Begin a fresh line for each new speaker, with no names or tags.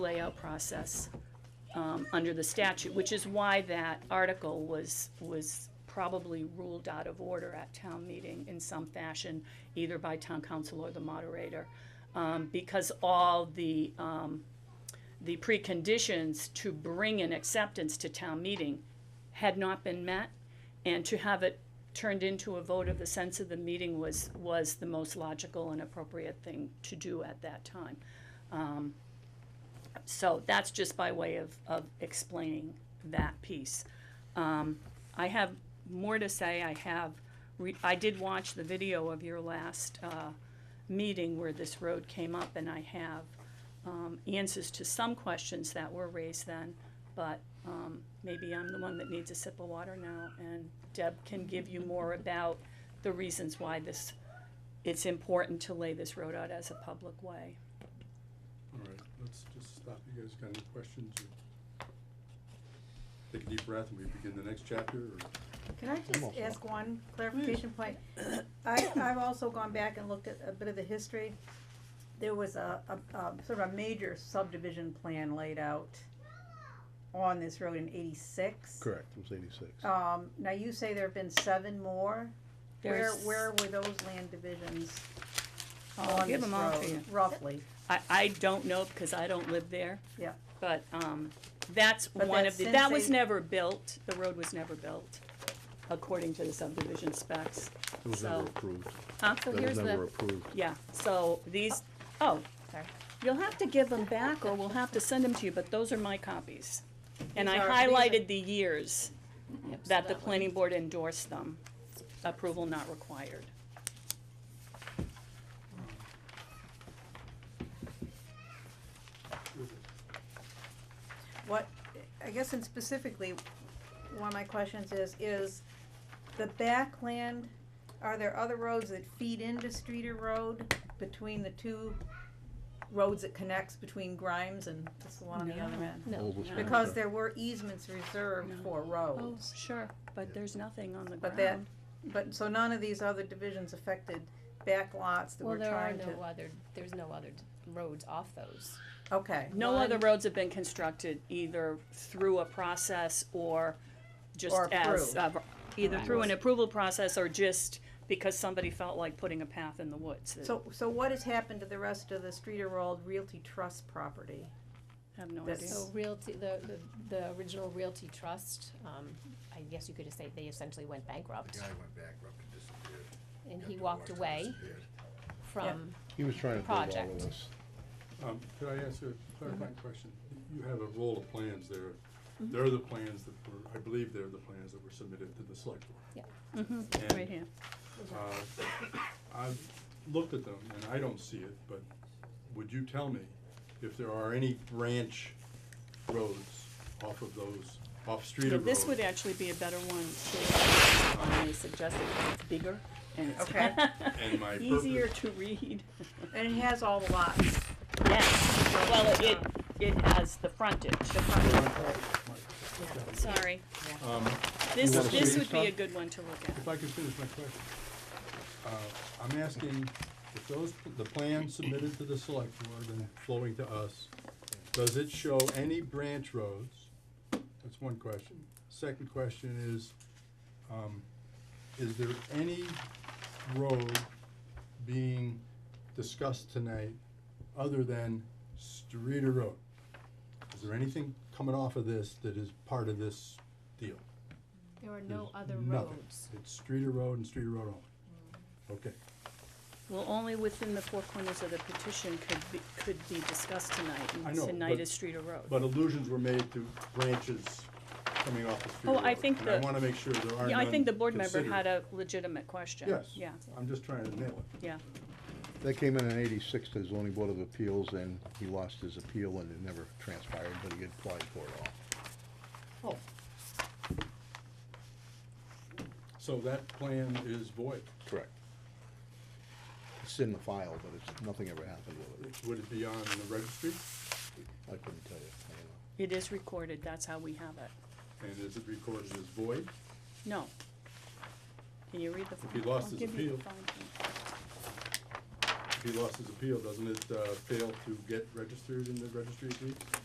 layout process um, under the statute, which is why that article was, was probably ruled out of order at town meeting in some fashion, either by town council or the moderator, um, because all the, um, the preconditions to bring an acceptance to town meeting had not been met, and to have it turned into a vote of the sense of the meeting was, was the most logical and appropriate thing to do at that time. So that's just by way of, of explaining that piece. Um, I have more to say. I have, re- I did watch the video of your last, uh, meeting where this road came up and I have, um, answers to some questions that were raised then, but, um, maybe I'm the one that needs a sip of water now and Deb can give you more about the reasons why this, it's important to lay this road out as a public way.
All right, let's just stop. You guys got any questions? or- Take a deep breath and we begin the next chapter, or
Can I just ask one clarification point? I, I've also gone back and looked at a bit of the history. There was a, a, a sort of a major subdivision plan laid out on this road in eighty-six.
Correct, it was eighty-six.
Um, now you say there have been seven more. Where,
There's-
where were those land divisions
I'll
on
give
this
them all to you.
road, roughly?
I, I don't know because I don't live there.
Yeah.
But, um, that's
But
one
that's
of the,
since
that was
they-
never built, the road was never built, according to the subdivision specs.
It was
Oh, So,
never approved.
huh, so
That was
here's
never
the,
approved.
yeah, so these, oh,
Sorry.
you'll have to give them back or we'll have to send them to you, but those are my copies. And I
These are- these are-
highlighted the years that the planning board endorsed them, approval not required.
What, I guess and specifically, one of my questions is, is the backland, are there other roads that feed into Streeter Road between the two roads that connects between Grimes and this one on the other end?
No.
Because there were easements reserved
No.
for
Oh,
roads,
sure, but there's nothing on the
But that-
ground.
but, so none of these other divisions affected back lots that
Well,
were
there are
trying to,
no other, there's no other d- roads off those.
okay,
No other
One-
roads have been constructed either through a process or just
Or
as,
approved.
uh, either through an approval process or just because somebody felt like putting a path in the woods. I
so, so what has happened to the rest of the Streeter Road Realty Trust property?
have no idea.
that's-
So Realty, the, the, the original Realty Trust, um, I guess you could just say they essentially went bankrupt.
guy went bankrupt and disappeared.
And
Got
he
divorced
walked
and
away
disappeared.
from,
He was trying to build all
Project.
of this.
Um, could I ask a clarifying
Mm-hmm.
question? You have a roll of plans there. They're the plans that were, I believe they're the plans that were submitted to the select board. Yeah.
Mm-hmm. Right here.
Uh, I've looked at them, and I don't see it, but would you tell me if there are any branch roads off of those, off
Yeah,
Streeter Road?
This would actually be a better one to, um, I suggested, it's bigger and
Okay.
And my
it's easier to read.
And it has all the lots.
Yes, well, it- it, it has the frontage.
purpose-
Sorry.
Um,
This,
You wanna
this
see
would be
some?
a good one to look at.
If I could finish my question. Uh, I'm asking if those, the plan submitted to the select board and flowing to us, does it show any branch roads? That's one question. Second question is, um, is there any road being discussed tonight other than Streeter Road? Is there anything coming off of this that is part of this deal?
there are
There's
no other
nothing.
roads.
It's Streeter Road and Streeter Road only. Okay,
Well, only within the four corners of the petition could be, could be discussed tonight,
I
and
know,
tonight
but-
is Street or Road.
but allusions were made to branches coming off of Streeter
Oh,
Road.
I think
And I
the-
wanna make sure there are none
Yeah, I think the board member
considered.
had a legitimate question.
Yes.
Yeah,
I'm just trying to nail it.
yeah,
That came in in eighty-six to the zoning board of appeals and he lost his appeal and it never transpired, but he had applied for it all.
Oh. So that plan is void.
Correct. It's in the file, but it's, nothing ever happened with it.
Would it be on the registry?
I couldn't tell you.
it is recorded, that's how we have it.
And is it recorded as void?
No. Can you read the?
he
fine-
lost
I'll
his
give you the
appeal.
fine print.
he lost his appeal, doesn't it, uh, fail to get registered in the registry of deeds?